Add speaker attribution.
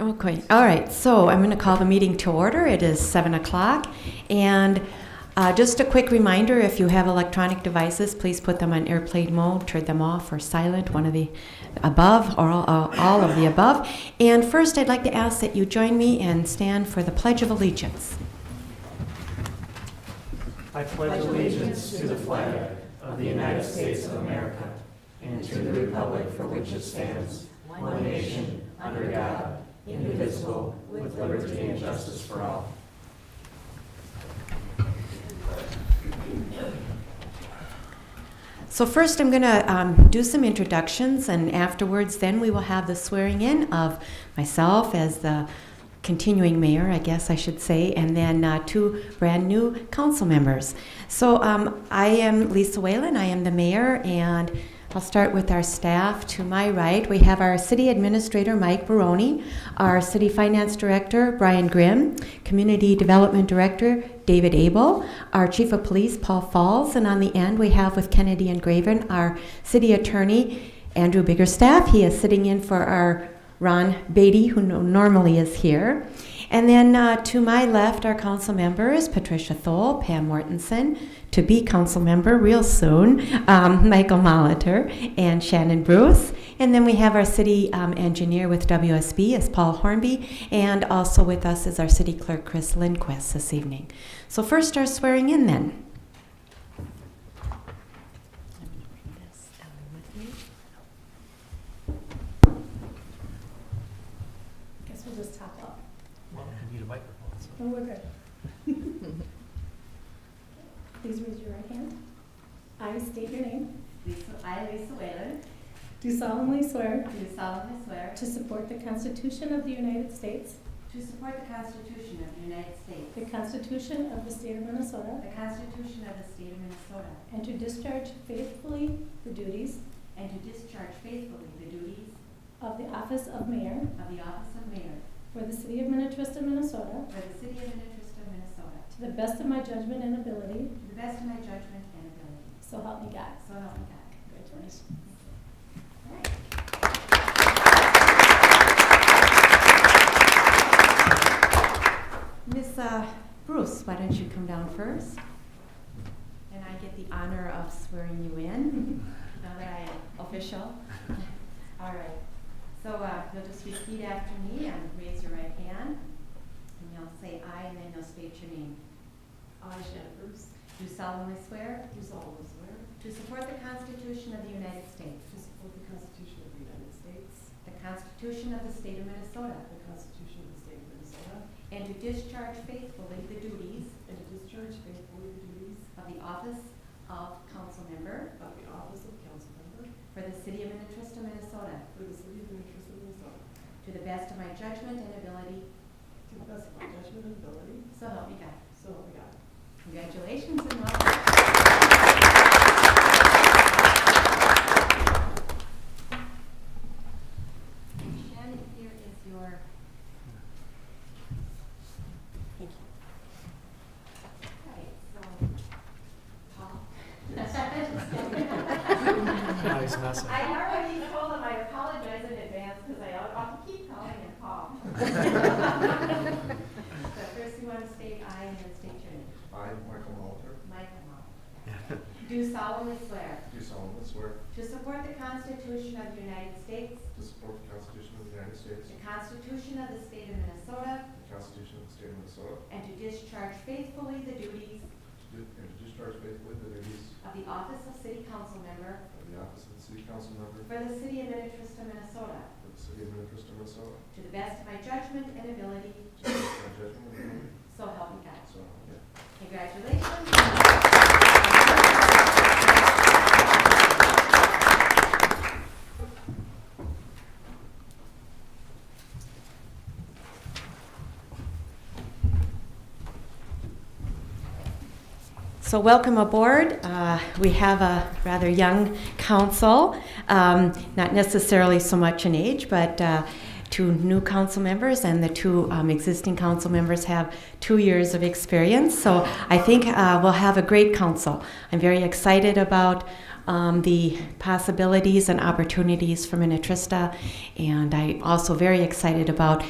Speaker 1: Okay, all right, so I'm going to call the meeting to order. It is 7 o'clock. And uh, just a quick reminder, if you have electronic devices, please put them on airplane mode, turn them off or silent, one of the above or all, uh, all of the above. And first, I'd like to ask that you join me and stand for the Pledge of Allegiance. So first, I'm going to um, do some introductions, and afterwards, then we will have the swearing in of myself as the continuing mayor, I guess I should say, and then uh, two brand new council members. So um, I am Lisa Whalen. I am the mayor, and I'll start with our staff. To my right, we have our city administrator, Mike Baroni, our city finance director, Brian Grimm, community development director, David Abel, our chief of police, Paul Falls, and on the end, we have with Kennedy and Graven, our city attorney, Andrew Biggerstaff. He is sitting in for our Ron Beatty, who no- normally is here. And then uh, to my left, our council members Patricia Thole, Pam Mortensen, to be council member real soon, um, Michael Molitor, and Shannon Bruce. And then we have our city um, engineer with WSB is Paul Hornby, and also with us is our city clerk Chris Lindquist this evening. So first, our swearing in then. I'm gonna bring this down with me.
Speaker 2: Guess we'll just top up.
Speaker 3: Well, we need a microphone, so.
Speaker 2: Oh, we're good. Please raise your right hand. I state your name.
Speaker 4: Lisa, I, Lisa Whalen,
Speaker 2: Do solemnly swear
Speaker 4: do solemnly swear
Speaker 2: to support the Constitution of the United States,
Speaker 4: to support the Constitution of the United States,
Speaker 2: the Constitution of the State of Minnesota,
Speaker 4: the Constitution of the State of Minnesota,
Speaker 2: and to discharge faithfully the duties
Speaker 4: and to discharge faithfully the duties
Speaker 2: of the office of mayor
Speaker 4: of the office of mayor
Speaker 2: for the city of Minnetrista, Minnesota,
Speaker 4: for the city of Minnetrista, Minnesota,
Speaker 2: to the best of my judgment and ability,
Speaker 4: to the best of my judgment and ability.
Speaker 2: so help me God.
Speaker 4: So help me God.
Speaker 2: Congratulations.
Speaker 1: Miss uh, Bruce, why don't you come down first? And I get the honor of swearing you in, now that I am official.
Speaker 4: All right. So uh, you'll just repeat after me and raise your right hand. And you'll say aye, and then you'll state your name. I, Shannon Bruce. Do solemnly swear. Do solemnly swear. To support the Constitution of the United States. To support the Constitution of the United States. The Constitution of the State of Minnesota. The Constitution of the State of Minnesota. And to discharge faithfully the duties. And to discharge faithfully the duties. Of the office of council member. Of the office of council member. For the city of Minnetrista, Minnesota. For the city of Minnetrista, Minnesota. To the best of my judgment and ability. To the best of my judgment and ability. So help me God. So help me God. Congratulations and welcome. Shannon, here is your. Thank you. All right, so, Paul.
Speaker 3: No, he's messing.
Speaker 4: I already told him I apologize in advance because I often keep calling him Paul. So first you want to state I and then state your name.
Speaker 5: I, Michael Molitor,
Speaker 4: Michael Molitor. Do solemnly swear
Speaker 5: do solemnly swear
Speaker 4: to support the Constitution of the United States,
Speaker 5: to support the Constitution of the United States,
Speaker 4: the Constitution of the State of Minnesota,
Speaker 5: the Constitution of the State of Minnesota,
Speaker 4: and to discharge faithfully the duties
Speaker 5: to do- and to discharge faithfully the duties
Speaker 4: of the office of city council member
Speaker 5: of the office of the City Council Member
Speaker 4: for the city of Minnetrista, Minnesota,
Speaker 5: for the City of Minnetrista, Minnesota,
Speaker 4: to the best of my judgment and ability,
Speaker 5: to the best of my judgment and ability,
Speaker 4: so help me God.
Speaker 5: so help me God.
Speaker 4: Congratulations.
Speaker 1: So welcome aboard. Uh, We have a rather young council, um, not necessarily so much in age, but uh, two new council members and the two um, existing council members have two years of experience. So I think uh, we'll have a great council. I'm very excited about um, the possibilities and opportunities for Minnetrista, and I'm also very excited about